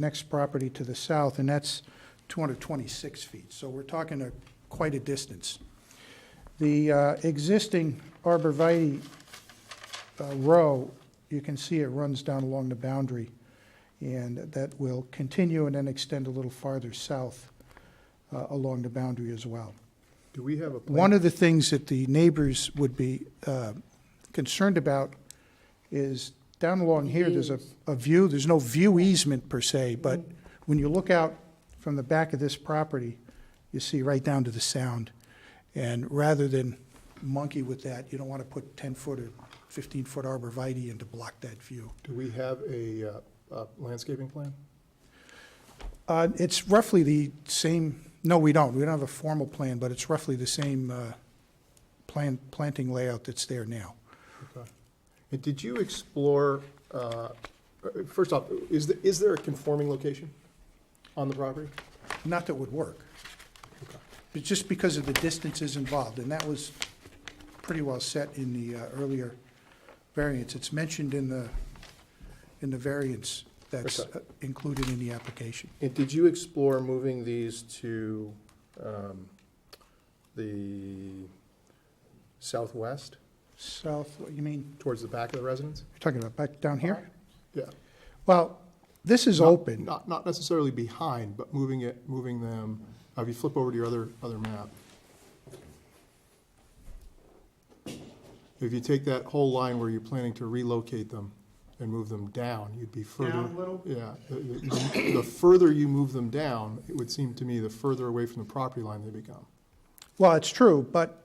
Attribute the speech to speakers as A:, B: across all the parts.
A: next property to the south, and that's 226 feet. So we're talking a, quite a distance. The uh, existing arborvitae uh, row, you can see it runs down along the boundary, and that will continue and then extend a little farther south uh, along the boundary as well.
B: Do we have a plan?
A: One of the things that the neighbors would be uh, concerned about is down along here, there's a,
C: Views.
A: a view, there's no view easement per se, but when you look out from the back of this property, you see right down to the sound. And rather than monkey with that, you don't want to put 10-foot or 15-foot arborvitae in to block that view.
B: Do we have a uh, uh, landscaping plan?
A: Uh, It's roughly the same, no, we don't, we don't have a formal plan, but it's roughly the same uh, plan, planting layout that's there now.
B: Okay. And did you explore, uh, first off, is, the- is there a conforming location on the property?
A: Not that would work, but just because of the distances involved, and that was pretty well set in the uh, earlier variance. It's mentioned in the, in the variance that's uh,
B: Okay.
A: included in the application.
B: And did you explore moving these to um, the southwest,
A: South, what you mean,
B: towards the back of the residence?
A: you're talking about back down here?
B: Yeah.
A: Well, this is
B: Not-
A: open.
B: Not, not necessarily behind, but moving it, moving them, uh, if you flip over to your other, other map. If you take that whole line where you're planning to relocate them and move them down, you'd be further.
A: Down a little?
B: Yeah, the- the the further you move them down, it would seem to me the further away from the property line they become.
A: Well, it's true, but,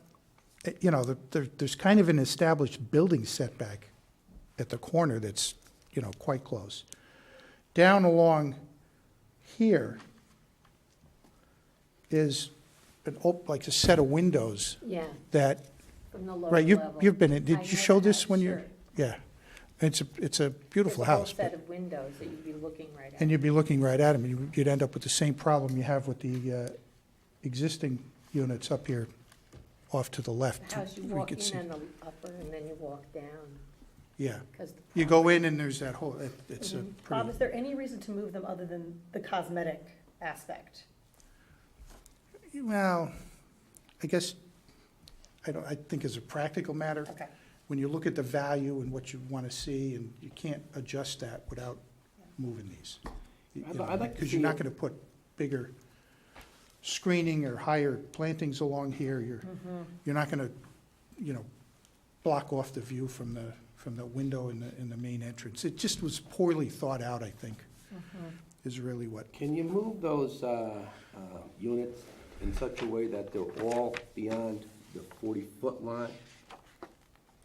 A: eh, you know, the- there, there's kind of an established building setback at the corner that's, you know, quite close. Down along here is an, op- like a set of windows
C: Yeah,
A: that,
C: from the lower level.
A: right, you've, you've been in,
C: I
A: did you
C: know
A: show
C: the
A: this
C: house,
A: when you're?
C: sure.
A: Yeah, it's a, it's a beautiful
C: There's a whole
A: house, but-
C: set of windows that you'd be looking right at.
A: and you'd be looking right at them, and you- you'd end up with the same problem you have with the uh, existing units up here off to the left.
C: The house, you
A: We
C: walk
A: could see-
C: in on the upper and then you walk down,
A: Yeah,
C: because the.
A: you go in and there's that whole, it- it's a
C: Mhm.
D: Bob,
A: pretty,
D: is there any reason to move them other than the cosmetic aspect?
A: well, I guess, I don't, I think as a practical matter,
D: Okay.
A: when you look at the value and what you want to see, and you can't adjust that without moving these.
E: I'd- I'd like to
A: Because you're not
E: see-
A: going to put bigger screening or higher plantings along here, you're,
E: Mm-hmm.
A: you're not going to, you know, block off the view from the, from the window in the, in the main entrance. It just was poorly thought out, I think,
E: Mm-hmm.
A: is really what
E: Can you move those uh, uh, units in such a way that they're all beyond the 40-foot line?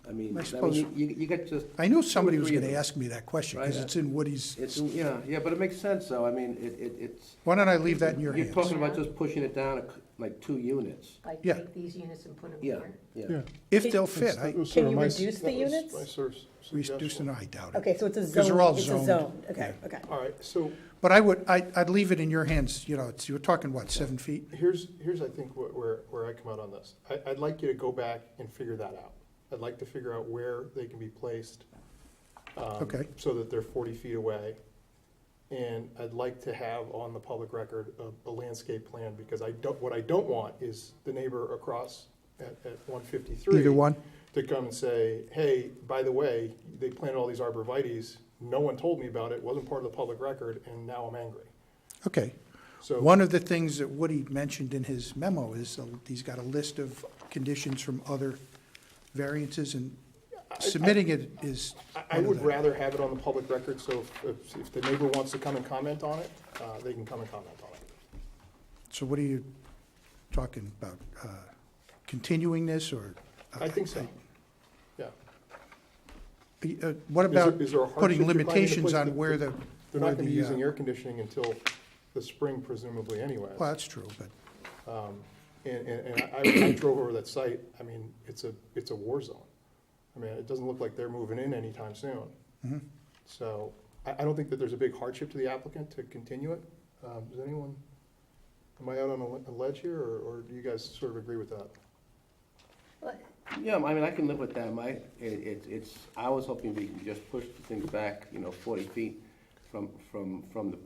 E: I mean,
A: I
E: I mean,
A: suppose-
E: you- you you get just,
A: I knew somebody was
E: Two or
A: going
E: three
A: to
E: of them.
A: ask me that question,
E: Right,
A: because
E: yeah.
A: it's in Woody's.
E: it's, yeah, yeah, but it makes sense, though, I mean, it, it- it's,
A: Why don't I leave that in your
E: you're
A: hands?
E: talking about just pushing it down a c- like two units.
C: Like,
A: Yeah.
C: take these units and put them
E: Yeah,
C: here.
E: yeah.
A: If they'll fit, I
D: Can you reduce the units?
A: reduce, no, I doubt it.
D: Okay, so it's a
A: Because they're all
D: zone, it's
A: zoned.
D: a zone, okay, okay.
B: All right, so
A: But I would, I, I'd leave it in your hands, you know, it's, you're talking, what, seven feet?
B: here's, here's, I think, wh- where, where I come out on this. I, I'd like you to go back and figure that out. I'd like to figure out where they can be placed. um,
A: Okay.
B: So that they're forty feet away. And I'd like to have on the public record a, a landscape plan, because I don't, what I don't want is the neighbor across at, at one fifty-three
A: Either one?
B: to come and say, hey, by the way, they planted all these arborvitae's, no one told me about it, wasn't part of the public record, and now I'm angry.
A: Okay.
B: So.
A: One of the things that Woody mentioned in his memo is uh, he's got a list of conditions from other variances, and submitting it is
B: I- I
A: one of
B: would
A: the-
B: rather have it on the public record, so if- if, if the neighbor wants to come and comment on it, uh, they can come and comment on it.
A: So what are you talking about? Uh, Continuing this, or?
B: I think so, yeah.
A: Uh, What
B: Is there-
A: about
B: is there a hardship
A: putting
B: you're finding in the
A: limitations
B: place
A: on
B: that-
A: where the?
B: They're
A: where
B: not gonna be
A: the, uh,
B: using air conditioning until the spring presumably anyway.
A: Well, that's true, but,
B: And, and, and I, I drove over that site, I mean, it's a, it's a war zone. I mean, it doesn't look like they're moving in anytime soon. So I, I don't think that there's a big hardship to the applicant to continue it. Um, does anyone, am I out on a le- a ledge here, or, or do you guys sort of agree with that?
C: Well,
E: Yeah, I mean, I can live with that, My it, it- it's, I was hoping we can just push the things back, you know, forty feet from, from, from the